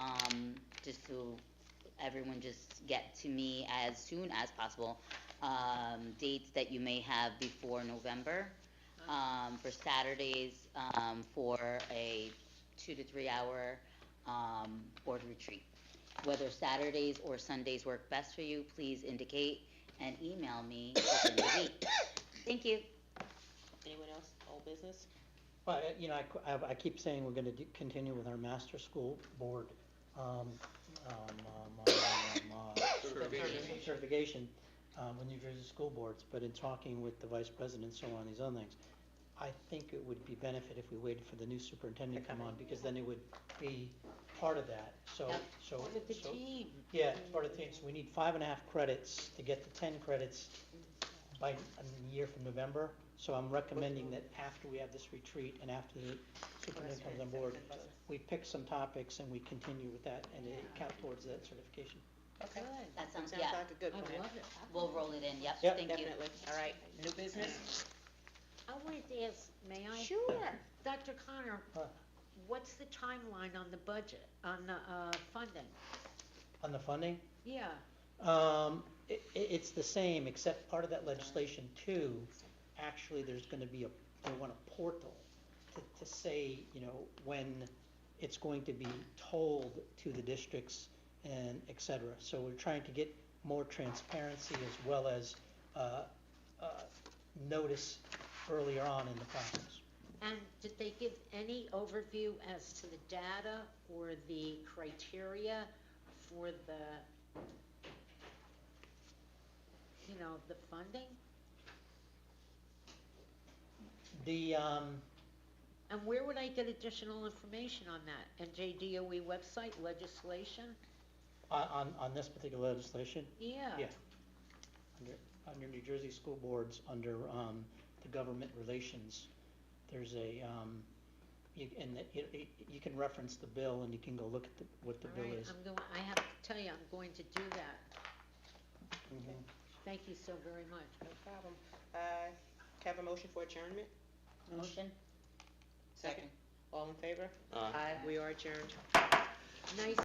um, to everyone just get to me as soon as possible, um, dates that you may have before November, um, for Saturdays, um, for a two to three hour, um, board retreat. Whether Saturdays or Sundays work best for you, please indicate and email me within the week. Thank you. Anyone else, old business? But, uh, you know, I qu- I, I keep saying we're gonna do- continue with our master school board, um, um, um, um, um, uh, Certification. certification, um, with New Jersey school boards, but in talking with the vice president, so on, these other things, I think it would be benefit if we waited for the new superintendent to come on, because then it would be part of that, so, Yep. so. Part of the so- team. Yeah, it's part of the thing, so we need five and a half credits to get to ten credits by a year from November. So I'm recommending that after we have this retreat and after the superintendent comes on board, we pick some topics and we continue with that and it count towards that certification. Okay. That sounds, Sounds yeah, like a good plan. we'll roll it in, yep, Yep. thank you. Definitely, all right, new business? I wanted to ask, may I? Sure. Dr. Connor, Huh. what's the timeline on the budget, on the uh, funding? On the funding, Yeah, um, i- i- it's the same, except part of that legislation too, actually, there's gonna be a, they want a portal to, to say, you know, when it's going to be told to the districts and et cetera. So we're trying to get more transparency as well as, uh, uh, notice earlier on in the process. and did they give any overview as to the data or the criteria for the, you know, the funding? The, um, And where would I get additional information on that? NJDOE E website, legislation? on, on, on this particular legislation, Yeah. Yeah. under, under New Jersey School Boards, under, um, the government relations, there's a, um, you, and that, you, you- you can reference the bill and you can go look at the, what the All bill right, is. I'm going, I have to tell you, I'm going to do that. Mhm. Thank you so very much. No problem. Uh, Have a motion for adjournment? Motion? Second. All in favor? Aye. We are adjourned. Nice